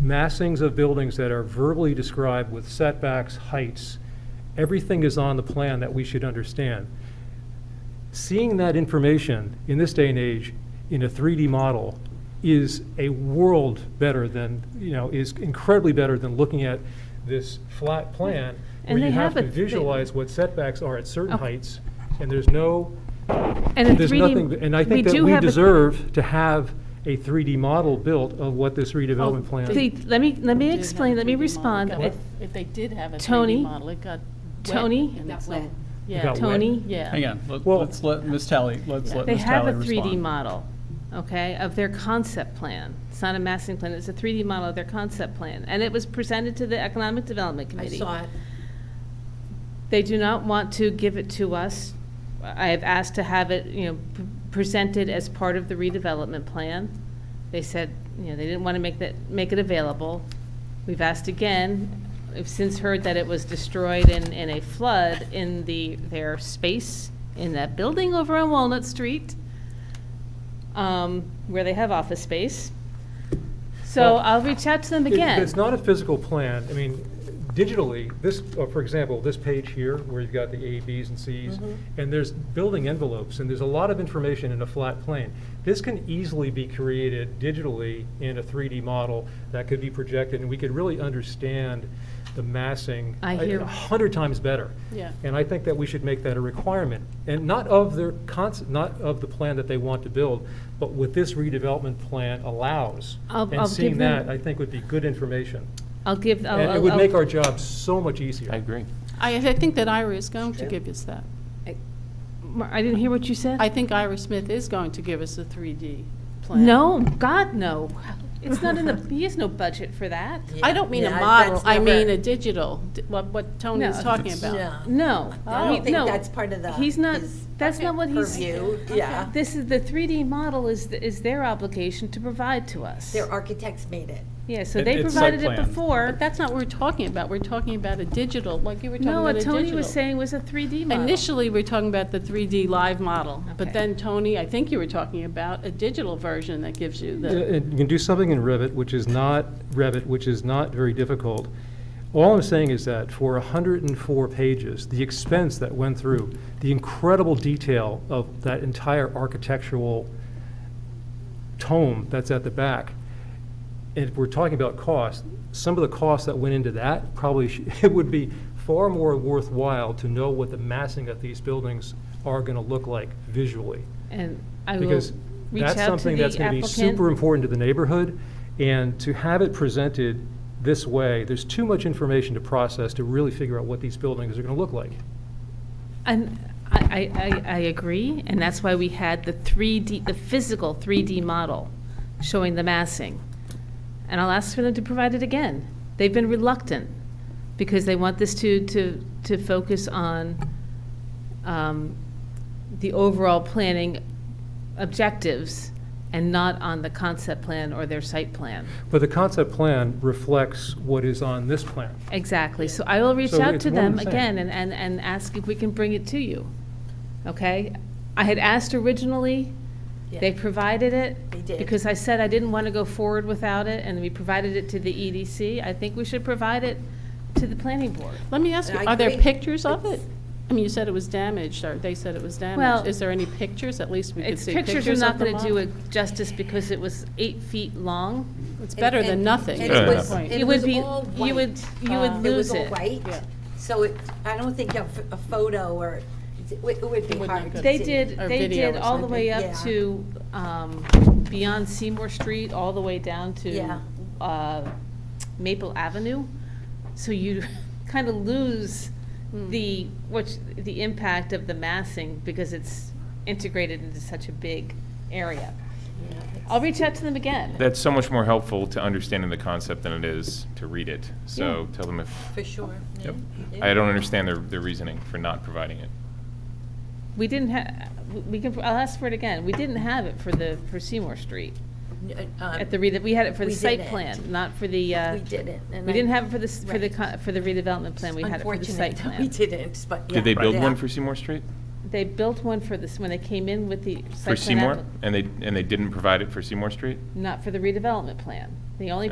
massings of buildings that are verbally described with setbacks, heights, everything is on the plan that we should understand. Seeing that information in this day and age in a 3D model is a world better than, you know, is incredibly better than looking at this flat plan where And you they have have to a- Oh. they- visualize what setbacks are at certain Okay. heights, and there's no, And a there's 3D nothing, and I think that do we have a- deserve to have a 3D model built of what this redevelopment Oh, plan. the- Let me, let me did have a explain, let me 3D model, respond. it got I- wet. If they did have a 3D Tony? model, it got wet. Tony? and Got it's wet. all- It Yeah. got wet. Tony? Yeah. Hang on, let- Well- let's let Ms. Talley, let's let They Ms. have Talley a 3D respond. model, okay, of their concept plan. It's not a massing plan, it's a 3D model of their concept plan. And it was presented to the Economic Development I Committee. saw it. They do not want to give it to us. I have asked to have it, you know, p- presented as part of the redevelopment plan. They said, you know, they didn't want to make that, make it available. We've asked again, I've since heard that it was destroyed in, in a flood in the, their space in that building over on Walnut Street, um, where they have office space. So Well- I'll reach out to them It- again. It's not a physical plan. I mean, digitally, this, uh, for example, this page here, where you've got the A, Bs, and Cs, Mm-hmm. and there's building envelopes, and there's a lot of information in a flat plane. This can easily be created digitally in a 3D model that could be projected, and we could really understand the massing. I uh, hear- A hundred times better. Yeah. And I think that we should make that a requirement, and not of their concept, not of the plan that they want to build, but what this redevelopment plan allows. I'll- I'll And give seeing them- that, I think would be good information. I'll give, I'll. And it would make I'll- our job so much easier. agree. I, I think that Ira is going to give us that. Mar- I didn't hear what you said. I think Ira Smith is going to give us a 3D plan. No, God, no. It's not in the, he has no budget for that. I don't mean a Yeah, I- model, that's I mean never- a digital, d- what, what Tony No. is talking about. Yeah. No. I he- don't think no. that's part of the. He's not, his that's not what he's, Purview, yeah. this is, the 3D model is, th- is their obligation to provide to us. Their architects made it. Yeah, so It- they it's site provided it plan. before. But that's not what we're talking about, we're talking about a digital, like you were talking No, about a what digital. Tony was saying was a 3D model. Initially, we're talking about the 3D live model, Okay. but then Tony, I think you were talking about a digital version that gives you Yeah, the, And you can do something in Revit, which is not, Revit, which is not very difficult. All I'm saying is that for 104 pages, the expense that went through, the incredible detail of that entire architectural tome that's at the back, and if we're talking about cost, some of the costs that went into that probably, sh- it would be far more worthwhile to know what the massing of these buildings are going to look like visually. And I will Because reach that's out to something the that's gonna be super applicant. important to the neighborhood, and to have it presented this way, there's too much information to process to really figure out what these buildings are gonna look like. And I, I, I I agree, and that's why we had the 3D, the physical 3D model showing the massing. And I'll ask for them to provide it again. They've been reluctant because they want this to, to, to focus on um, the overall planning objectives and not on the concept plan or their site plan. But the concept plan reflects what is on this plan. Exactly, so I will reach So out it's to one and them the same. again and, and, and ask if we can bring it to you, okay? I had asked originally, they Yeah. provided it. They did. Because I said I didn't want to go forward without it, and we provided it to the EDC. I think we should provide it to the planning board. let me ask you, I are there agree. pictures of it? It's- I mean, you said it was damaged, or they said it was Well- damaged. Is there any pictures? At least we could Its see pictures are pictures not of the going to do model. it justice because it was eight feet long. It's better And- than and- nothing. and is it my was- point. it It would was be, all you would, white. Um, you would Uh, It lose was all it. white, Yeah. so it, I don't think a, ph- a photo or, it would- it would be would hard look to see. good. They did, Or they video did or all the way something. up Yeah. to, um, beyond Seymour Street, all the way down Yeah. to, uh, Maple Avenue. So you kind of lose Hmm. the, what's, the impact of the massing because it's integrated into such a big area. I'll reach out to them again. That's so much more helpful to understanding the concept than it is to read it. So tell them if, For sure. yep. I don't understand their, their reasoning for not providing it. We didn't ha, we can, I'll ask for it again. We didn't have it for the, for Seymour Street. At the, re- we had it for the we site didn't. plan, not for the, uh. um, We didn't. and We I- didn't have it for the, s- for the, Right. co- for the redevelopment plan, we had it for the site Unfortunate that we plan. didn't, but yeah. Did they build yeah. one for Seymour Street? They built one for this, when they came in with the site plan. For Seymour? app- And they, and they didn't provide it for Seymour Street? Not for the redevelopment plan. The only